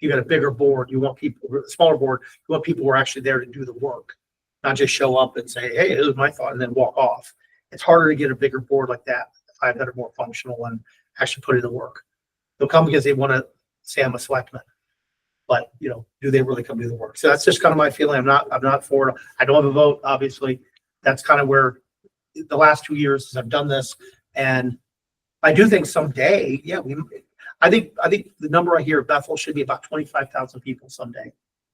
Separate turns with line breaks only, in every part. you got a bigger board, you want people, smaller board, you want people who are actually there to do the work. Not just show up and say, hey, this is my thought, and then walk off. It's harder to get a bigger board like that, five that are more functional and actually put in the work. They'll come because they want to say I'm a selectman. But, you know, do they really come do the work? So that's just kind of my feeling. I'm not, I'm not for it. I don't have a vote, obviously. That's kind of where the last two years since I've done this. And I do think someday, yeah, we, I think, I think the number I hear Bethel should be about twenty-five thousand people someday.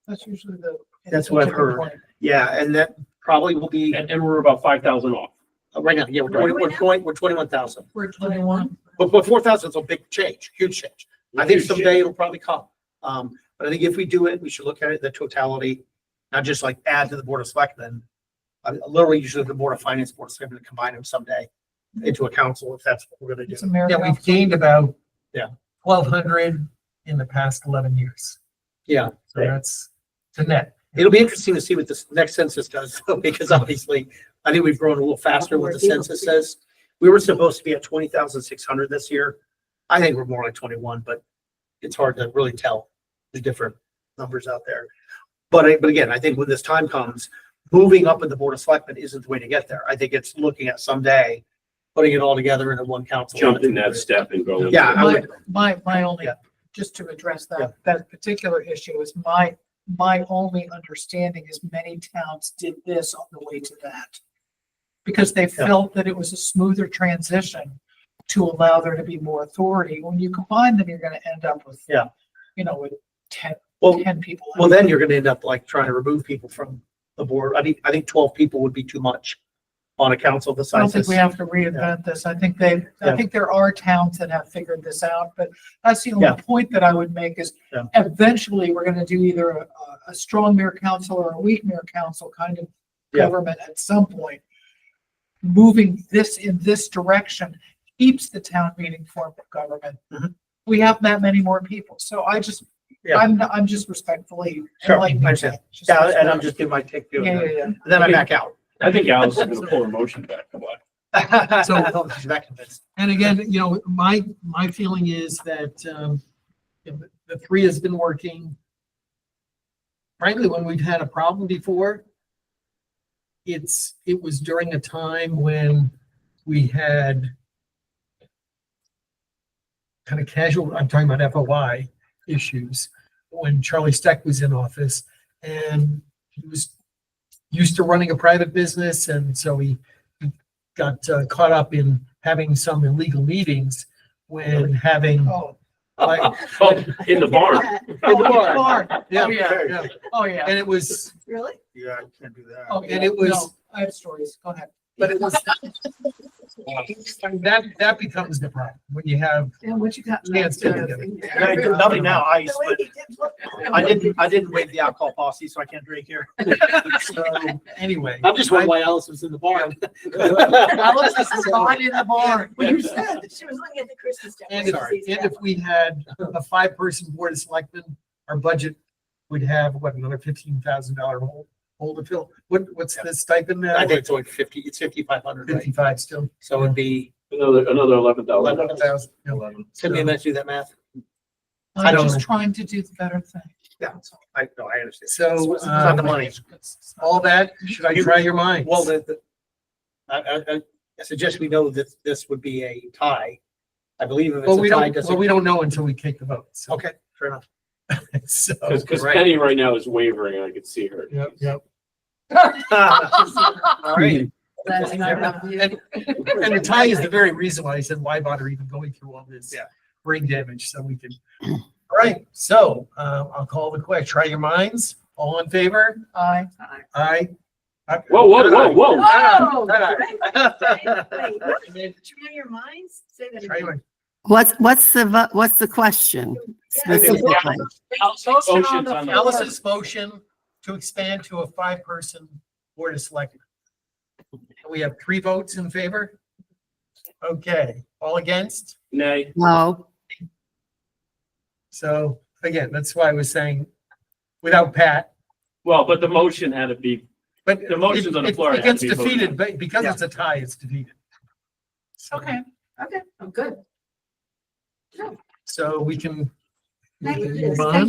That's usually the.
That's what I've heard. Yeah, and that probably will be,
And, and we're about five thousand off.
uh, right now, yeah, we're twenty, we're twenty, we're twenty-one thousand.
We're twenty-one.
But, but four thousand is a big change, huge change. I think someday it'll probably come. Um, but I think if we do it, we should look at it, the totality, not just like add to the Board of Selectmen. I literally usually the Board of Finance, Board of Selectmen, combine them someday into a council if that's what we're gonna do.
It's America.
Yeah, we've gained about.
Yeah.
Twelve hundred in the past eleven years.
Yeah.
So that's to net.
It'll be interesting to see what this next census does, though, because obviously, I think we've grown a little faster with the census says. We were supposed to be at twenty thousand six hundred this year. I think we're more like twenty-one, but it's hard to really tell the different numbers out there. But, I- but again, I think when this time comes, moving up in the Board of Selectmen isn't the way to get there. I think it's looking at someday, putting it all together into one council.
Jumping that step and going.
Yeah, I
My,
would,
my, my only,
Yeah.
just to address
Yeah.
that, that particular issue is my, my only understanding is many towns did this on the way to that. Because they
Yeah.
felt that it was a smoother transition to allow there to be more authority. When you combine them, you're gonna end up with.
Yeah.
You know, with ten,
well,
ten people.
Well, then you're gonna end up like trying to remove people from the board. I think, I think twelve people would be too much on a council the
I don't
size
think
this.
we have to reinvent this. I think they, I
Yeah.
think there are towns that have figured this out, but that's the
Yeah.
only point that I would make is
Yeah.
eventually, we're gonna do either a, a- a strong mayor council or a weak mayor council kind of
Yeah.
government at some point. Moving this in this direction keeps the town meeting form of government.
Mhm.
We have that many more people, so I just,
Yeah.
I'm, I'm just respectfully.
Sure, I
enlightening
understand.
that. Just
Yeah, and I'm
respect-
just giving my take to it.
Yeah, yeah,
and
yeah.
Then I back out.
I think Alice is gonna pull her motion back. Come on.
I
So-
don't think she's that convinced.
And again, you know, my, my feeling is that, um, you know, the- the three has been working. Frankly, when we've had a problem before, it's, it was during a time when we had kind of casual, I'm talking about FOI issues, when Charlie Steck was in office and he was used to running a private business and so he got uh, caught up in having some illegal meetings when having,
Oh,
like,
Oh, in the barn.
in the bar. Yeah,
Oh, yeah.
yeah.
oh, yeah.
And it was,
Really?
Yeah, I can't do that.
Oh,
And
yeah,
it was-
no, I have stories, go ahead.
but it was. That, that becomes the problem when you have,
Yeah, what you got?
Yeah, it's good, good.
And I do Nothing now, I, but I
I
didn't, I didn't waive the alcohol policy, so I can't drink here.
so, um, anyway.
I'm just wondering why Alice was in the barn.
Alice is behind in the barn.
Well, you said that she was looking at the Christmas
And if,
decorations.
and if we had a five-person board of selectmen, our budget would have, what, another fifteen thousand dollar hole, hole to fill? What, what's the stipend now?
I think it's only fifty, it's fifty-five hundred, right?
Fifty-five still.
So it'd be,
Another, another eleven thousand.
Eleven thousand. Eleven.
send me a minute to do that math.
I'm
don't
just
know.
trying to do the better thing.
Yeah. I, no, I understand.
So,
It's not the
um,
money.
all that, should I try your minds?
uh, Well, the, the, I, I, I- I suggest we know that this would be a tie. I believe if
Well,
it's
we
a tie, it
don't, well, we
doesn't.
don't know until we take the vote, so.
Okay, fair enough.
So,
Cause, 'cause
Right.
Penny right now is wavering. I could see her.
yep, yep.
All right.
That's not enough.
And, and the tie is the very reason why I said, why bother even going through all this?
Yeah.
Brain damage, so we can. All right, so, um, I'll call the question. Try your minds. All in favor?
I,
Aye. I-
Whoa, whoa, whoa, whoa.
Whoa!
Shut up.
Wait, wait, what? Try your minds, say that.
Try your
again.
minds.
What's, what's the, vo- what's the question
Yeah.
specifically?
Ocean's on the-
Alice's motion to expand to a five-person board of selectmen. We have three votes in favor? Okay, all against?
Nay.
No,
So again, that's why I was saying without Pat,
Well, but the motion had to be,
but.
The motion's on the
it-
floor, it
It
has
gets
to be voted on.
defeated, but because it's a tie, it's defeated. So-
okay,
Okay, I'm good.
So we can. we
Thank
can
you.
move on.
Thank